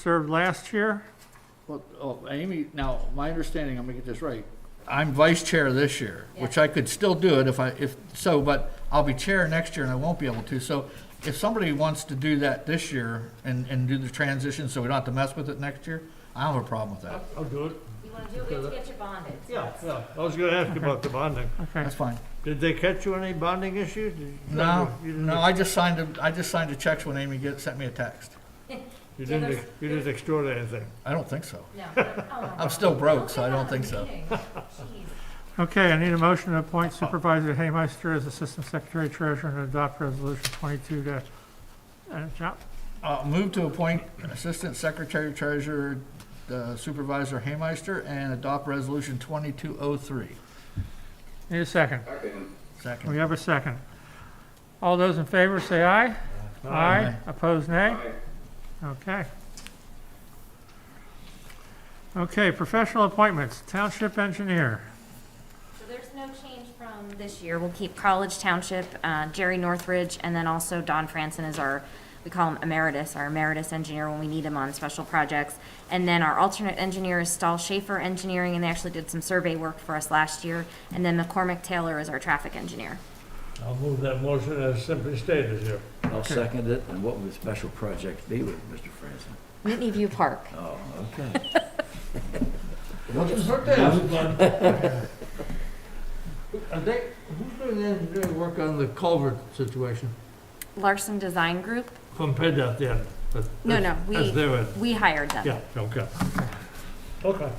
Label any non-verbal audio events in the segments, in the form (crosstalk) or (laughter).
served last year. Well, oh, Amy, now, my understanding, I'm gonna get this right, I'm vice chair this year, which I could still do it if I, if, so, but I'll be chair next year and I won't be able to, so if somebody wants to do that this year and, and do the transition so we don't have to mess with it next year, I don't have a problem with that. I'll do it. You want to do it, we have to get your bonded. so Yeah, that's- Oh, yeah. I was gonna ask you about the bonding. Okay, That's fine. Did they catch you on any bonding issues? Did you- No, you didn't- no, I just signed, a- I just signed the checks when Amy get, sent me a text. You didn't, ex- you didn't extort anything. I don't think so. (laughs) No. oh my I'm God. still broke, so I Don't don't get think so. out of the meeting. Jeez. okay, I need a motion to appoint Supervisor Haymeister as Assistant Secretary Treasurer and adopt Resolution 22 to, uh, John, Uh, move to appoint Assistant Secretary Treasurer uh, Supervisor Haymeister and adopt Resolution 2203. need a second. We Second. have a second. All those in favor, say aye. Aye. Opposed, nay? Okay. Okay, professional appointments, Township Engineer. So there's no change from this year. We'll keep College Township, uh, Jerry Northridge, and then also Don Franson is our, we call him emeritus, our emeritus engineer when we need him on special projects. And then our alternate engineer is Stahl Schaefer Engineering, and they actually did some survey work for us last year. And then McCormick Taylor is our traffic engineer. I'll move that motion as simply stated here. I'll second it, and what would the special project be with Mr. Franson? Whitney View Park. Oh, okay. (laughs) What's his birthday? (laughs) Are they, who's doing the engineering work on the culvert situation? Larson Design Group, From PennDOT then? but No, no, that's- we- That's their end. we hired them. Yeah, okay. Okay.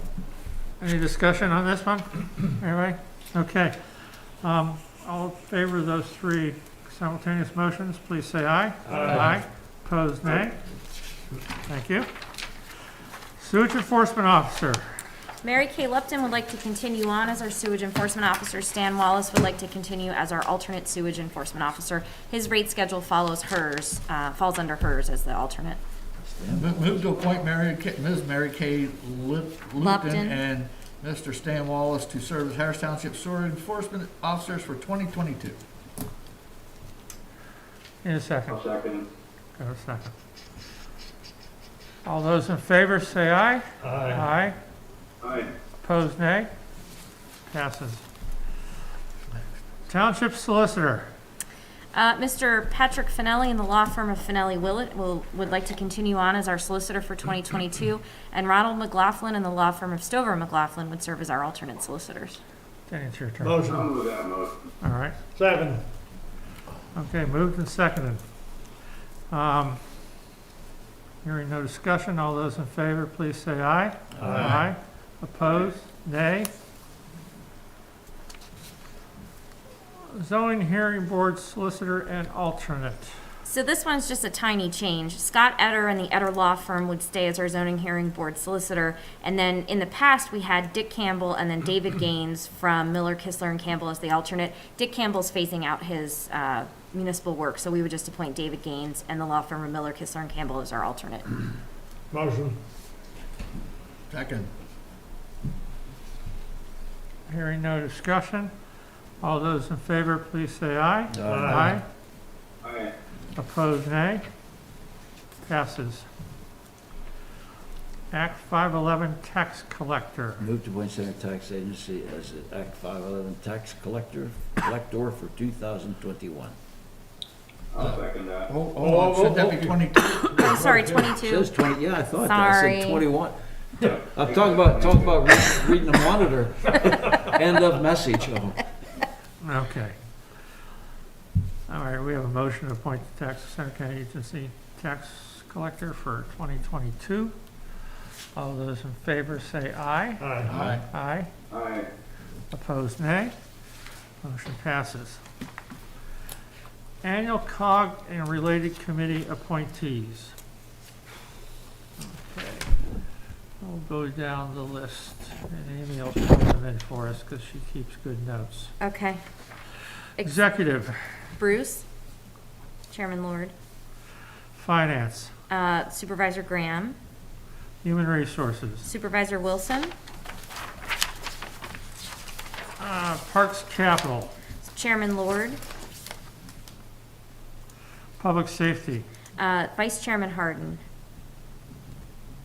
Any discussion on this one? Anyway, okay. Um, All in favor of those three simultaneous motions, please say aye. Aye. Opposed, nay? Thank you. Sewage Enforcement Officer, Mary Kay Lupton would like to continue on as our sewage enforcement officer. Stan Wallace would like to continue as our alternate sewage enforcement officer. His rate schedule follows hers, uh, falls under hers as the alternate. Mo- Move to appoint Mary, Kay- Ms. Mary Kay Lip- Lupton Lupton. and Mr. Stan Wallace to serve as Harris Township Sewer Enforcement Officers for 2022. in a 2nd second. Got a second. All those in favor, say aye. Aye. Aye. Opposed, nay? Passes. Township Solicitor, Uh, Mr. Patrick Finelli and the law firm of Finelli Willett will, would like to continue on as our solicitor for 2022. And Ronald McLaughlin and the law firm of Stover McLaughlin would serve as our alternate solicitors. Danny, it's your turn. All Motion, right. second. Okay, moved and seconded. Um, Hearing no discussion, all those in favor, please say aye. Aye. Opposed, nay. Zoning Hearing Board Solicitor and Alternate. So this one's just a tiny change. Scott Etter and the Etter Law Firm would stay as our zoning hearing board solicitor. And then in the past, we had Dick Campbell and then David Gaines from Miller, Kistler, and Campbell as the alternate. Dick Campbell's phasing out his uh, municipal work, so we would just appoint David Gaines and the law firm of Miller, Kistler, and Campbell as our alternate. Motion, Second. Hearing no discussion, all those in favor, please say aye. Aye. Aye. Opposed, nay. Passes. Act 511 Tax Collector. Move to appoint Center Tax Agency as an Act 511 tax collector, collector for 2021. I'll second Oh, that. Hold hold on, should that be 22? I'm sorry, Says 22. 20, yeah, I thought that, I Sorry. said 21. I'm talking about, talking about re- reading the monitor, end of message, oh. Okay. All right, we have a motion to appoint the Tax Center County Agency Tax Collector for 2022. All those in favor say aye. aye. Aye. Aye. Aye. Opposed, nay. Motion passes. Annual COG and related committee appointees. Okay, We'll go down the list, and Amy will fill them in for us, because she keeps good notes. Okay. Ex- Executive, Bruce, Chairman Lord, Finance, uh, Supervisor Graham, Human Resources, Supervisor Wilson, uh, Parks Capital, Chairman Lord, Public Safety, uh, Vice Chairman Harden,